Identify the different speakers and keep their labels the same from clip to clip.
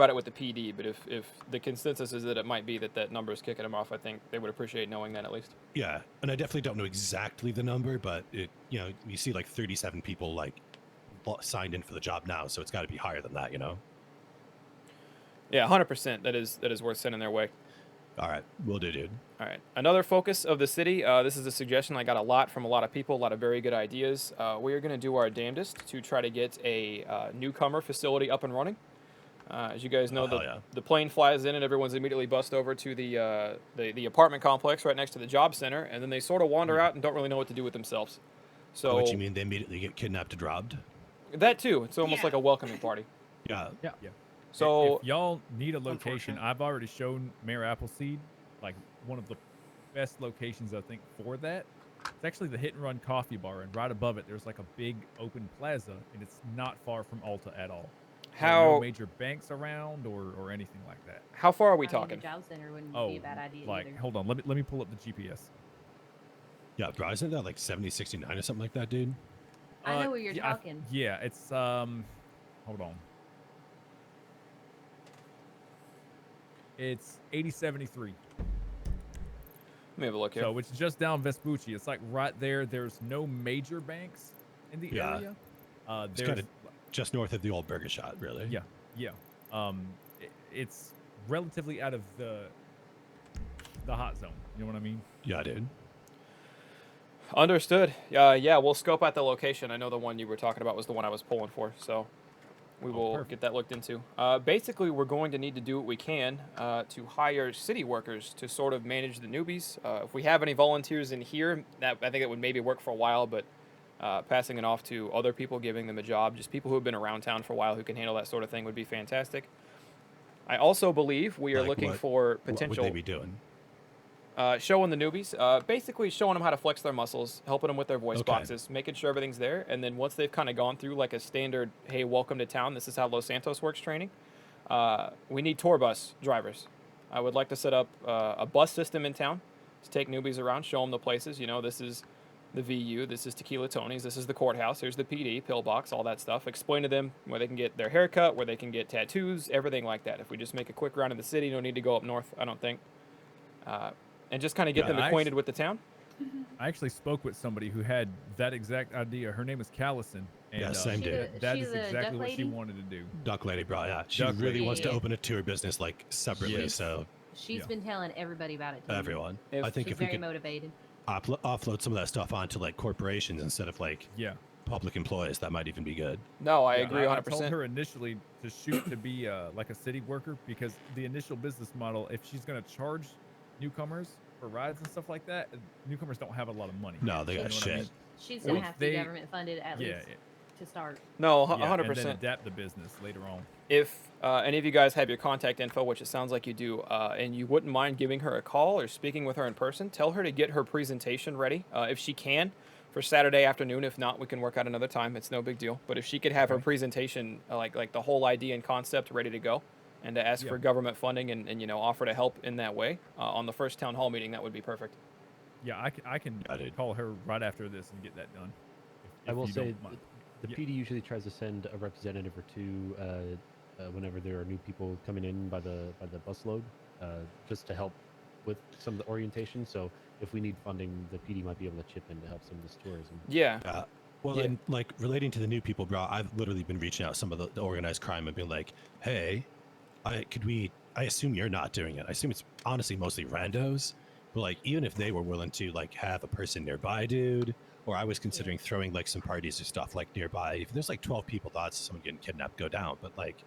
Speaker 1: about it with the PD, but if, if the consensus is that it might be that that number is kicking them off, I think they would appreciate knowing that at least.
Speaker 2: Yeah, and I definitely don't know exactly the number, but it you know you see like 37 people like lo- signed in for the job now, so it's got to be higher than that, you know.
Speaker 1: Yeah, 100%. That is that is worth sending their way.
Speaker 2: All right, we'll do, dude.
Speaker 1: All right. Another focus of the city. Uh, this is a suggestion I got a lot from a lot of people, a lot of very good ideas. Uh, we are going to do our damnedest to try to get a uh, newcomer facility up and running. Uh, as you guys know,
Speaker 2: Oh,
Speaker 1: the,
Speaker 2: hell yeah.
Speaker 1: the plane flies in and everyone's immediately bussed over to the, uh, the the apartment complex right next to the job center, and then they sort of wander out and don't really know what to do with themselves. So
Speaker 2: Hmm. what do you mean they immediately get kidnapped and robbed?
Speaker 1: that too, it's almost
Speaker 3: Yeah.
Speaker 1: like a welcoming party.
Speaker 2: Yeah,
Speaker 4: Yeah.
Speaker 1: So
Speaker 4: if y'all need a location,
Speaker 3: Unfortunate.
Speaker 4: I've already shown Mayor Appleseed like one of the best locations I think for that. It's actually the Hit and Run Coffee Bar, and right above it, there's like a big open plaza, and it's not far from Alta at all. There are no
Speaker 1: how
Speaker 4: major banks around or or anything like that.
Speaker 1: how far are we
Speaker 3: I mean, the
Speaker 1: talking?
Speaker 3: job center wouldn't
Speaker 4: Oh,
Speaker 3: be a bad idea
Speaker 4: like
Speaker 3: either.
Speaker 4: hold on, let me let me pull up the GPS.
Speaker 2: yeah, bro. Isn't that like 70, 69 or something like that, dude?
Speaker 3: I
Speaker 4: Uh,
Speaker 3: know what you're
Speaker 4: yeah, I-
Speaker 3: talking.
Speaker 4: yeah, it's um, hold on. It's eighty seventy three.
Speaker 1: Let me have a look here.
Speaker 4: So it's just down Vespucci. It's like right there. There's no major banks in the
Speaker 2: Yeah.
Speaker 4: area. Uh,
Speaker 2: It's
Speaker 4: there's
Speaker 2: kinda- Just north of the old burger shot, really.
Speaker 4: Yeah. yeah. Um, i it's relatively out of the the hot zone. You know what I mean?
Speaker 2: yeah, dude.
Speaker 1: Understood. Uh, yeah, we'll scope out the location. I know the one you were talking about was the one I was pulling for, so we
Speaker 4: Oh,
Speaker 1: will
Speaker 4: perfect.
Speaker 1: get that looked into. Uh, basically, we're going to need to do what we can uh, to hire city workers to sort of manage the newbies. Uh, if we have any volunteers in here, that I think it would maybe work for a while, but uh, passing it off to other people, giving them a job, just people who have been around town for a while who can handle that sort of thing would be fantastic. I also believe we are
Speaker 2: Like
Speaker 1: looking
Speaker 2: what-
Speaker 1: for
Speaker 2: What
Speaker 1: potential
Speaker 2: would they be doing?
Speaker 1: uh, showing the newbies, uh, basically showing them how to flex their muscles, helping them with their voice
Speaker 2: Okay.
Speaker 1: boxes, making sure everything's there. And then once they've kind of gone through like a standard, hey, welcome to town, this is how Los Santos works training, uh, we need tour bus drivers. I would like to set up uh, a bus system in town to take newbies around, show them the places. You know, this is the VU, this is Tequila Tony's, this is the courthouse, here's the PD, pillbox, all that stuff. Explain to them where they can get their haircut, where they can get tattoos, everything like that. If we just make a quick round of the city, no need to go up north, I don't think. Uh, and just kind of get
Speaker 2: Yeah,
Speaker 1: them
Speaker 4: I
Speaker 1: acquainted
Speaker 4: actu-
Speaker 1: with the town.
Speaker 4: I actually spoke with somebody who had that exact idea. Her name is Callison. And, uh,
Speaker 2: Yeah, same
Speaker 3: She's
Speaker 2: dude.
Speaker 3: a-
Speaker 4: That
Speaker 3: she's
Speaker 4: is
Speaker 3: a duck
Speaker 4: exactly what she
Speaker 3: lady?
Speaker 4: wanted to do.
Speaker 2: Duck Lady, bro. Yeah, she
Speaker 4: Duck
Speaker 2: really
Speaker 4: Lady.
Speaker 2: wants to
Speaker 3: Yeah.
Speaker 2: open a tour business like separately.
Speaker 4: Yes.
Speaker 2: So
Speaker 3: She's
Speaker 4: yeah.
Speaker 3: been telling everybody about it. too.
Speaker 2: everyone,
Speaker 1: If-
Speaker 2: I think
Speaker 3: She's
Speaker 2: if we
Speaker 3: very
Speaker 2: could
Speaker 3: motivated.
Speaker 2: uplo- offload some of that stuff onto like corporations instead of like
Speaker 4: Yeah.
Speaker 2: public employees, that might even be good.
Speaker 1: No, I
Speaker 4: Yeah,
Speaker 1: agree 100.
Speaker 4: I told
Speaker 1: percent
Speaker 4: her initially to shoot to be uh, like a city worker because the initial business model, if she's going to charge newcomers for rides and stuff like that, newcomers don't have a lot of money.
Speaker 2: No, they
Speaker 3: You
Speaker 2: got
Speaker 4: know what I mean?
Speaker 2: shit.
Speaker 3: She's gonna
Speaker 4: If
Speaker 3: have to be
Speaker 4: they-
Speaker 3: government funded at
Speaker 4: yeah,
Speaker 3: least
Speaker 4: it-
Speaker 3: to start.
Speaker 1: No,
Speaker 4: yeah,
Speaker 1: 100.
Speaker 4: And then
Speaker 1: percent
Speaker 4: adapt the business later on.
Speaker 1: If uh, any of you guys have your contact info, which it sounds like you do, uh, and you wouldn't mind giving her a call or speaking with her in person, tell her to get her presentation ready uh, if she can for Saturday afternoon. If not, we can work out another time. It's no big deal. But if she could have her
Speaker 4: Okay.
Speaker 1: presentation, uh, like like the whole idea and concept, ready to go, and to ask
Speaker 4: Yeah.
Speaker 1: for government funding and, and you know offer to help in that way uh, on the first town hall meeting, that would be perfect.
Speaker 4: Yeah, I, c- I can
Speaker 2: Yeah, dude.
Speaker 4: call her right after this and get that done. if-
Speaker 5: I
Speaker 4: if
Speaker 5: will
Speaker 4: you don't
Speaker 5: say
Speaker 4: mind.
Speaker 5: the
Speaker 4: Yeah.
Speaker 5: PD usually tries to send a representative or two uh, uh, whenever there are new people coming in by the by the busload, uh, just to help with some of the orientation. So if we need funding, the PD might be able to chip in to help some of this tourism.
Speaker 1: Yeah,
Speaker 2: Yeah. Well,
Speaker 1: Yeah.
Speaker 2: and like relating to the new people, bro, I've literally been reaching out to some of the, the organized crime and being like, hey, I could we? I assume you're not doing it. I assume it's honestly mostly randos. But like, even if they were willing to like have a person nearby, dude, or I was considering throwing like some parties or stuff like nearby. If there's like 12 people, odds of someone getting kidnapped go down. But like,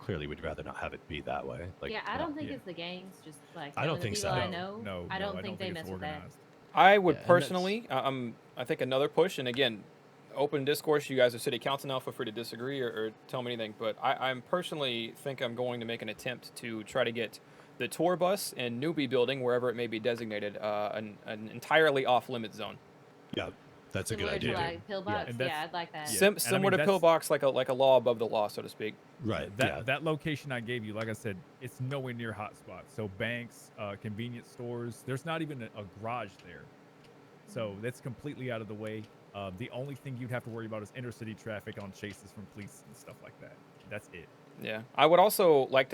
Speaker 2: clearly, we'd rather not have it be that way. Like,
Speaker 3: yeah, I don't think
Speaker 4: yeah.
Speaker 3: it's the gangs. Just like
Speaker 2: I
Speaker 3: some
Speaker 2: don't
Speaker 3: of the
Speaker 2: think
Speaker 3: people
Speaker 2: so.
Speaker 3: I
Speaker 2: No,
Speaker 3: know.
Speaker 4: no,
Speaker 3: I
Speaker 4: no,
Speaker 3: don't think they
Speaker 4: it's
Speaker 3: mess with that.
Speaker 4: organized.
Speaker 1: I would
Speaker 5: Yeah, and that's-
Speaker 1: personally, uh, um, I think another push, and again, open discourse. You guys are city council now. Feel free to disagree or, or tell me anything. But I, I'm personally think I'm going to make an attempt to try to get the tour bus and newbie building, wherever it may be designated, uh, an, an entirely off limit zone.
Speaker 2: yeah, that's a good
Speaker 3: Similar
Speaker 2: idea.
Speaker 3: to
Speaker 2: dude.
Speaker 3: like pillbox.
Speaker 4: And
Speaker 3: Yeah,
Speaker 4: that's-
Speaker 3: I'd like that.
Speaker 4: Yeah,
Speaker 1: Sim-
Speaker 4: and I
Speaker 1: similar
Speaker 4: mean,
Speaker 1: to
Speaker 4: that's-
Speaker 1: pillbox, like a like a law above the law, so to speak.
Speaker 2: Right.
Speaker 4: That
Speaker 2: yeah.
Speaker 4: that location I gave you, like I said, it's nowhere near hotspots. So banks, uh, convenience stores. There's not even a, a garage there, so that's completely out of the way. Um, the only thing you'd have to worry about is inner city traffic on chases from police and stuff like that. That's it.
Speaker 1: Yeah. I would also like to.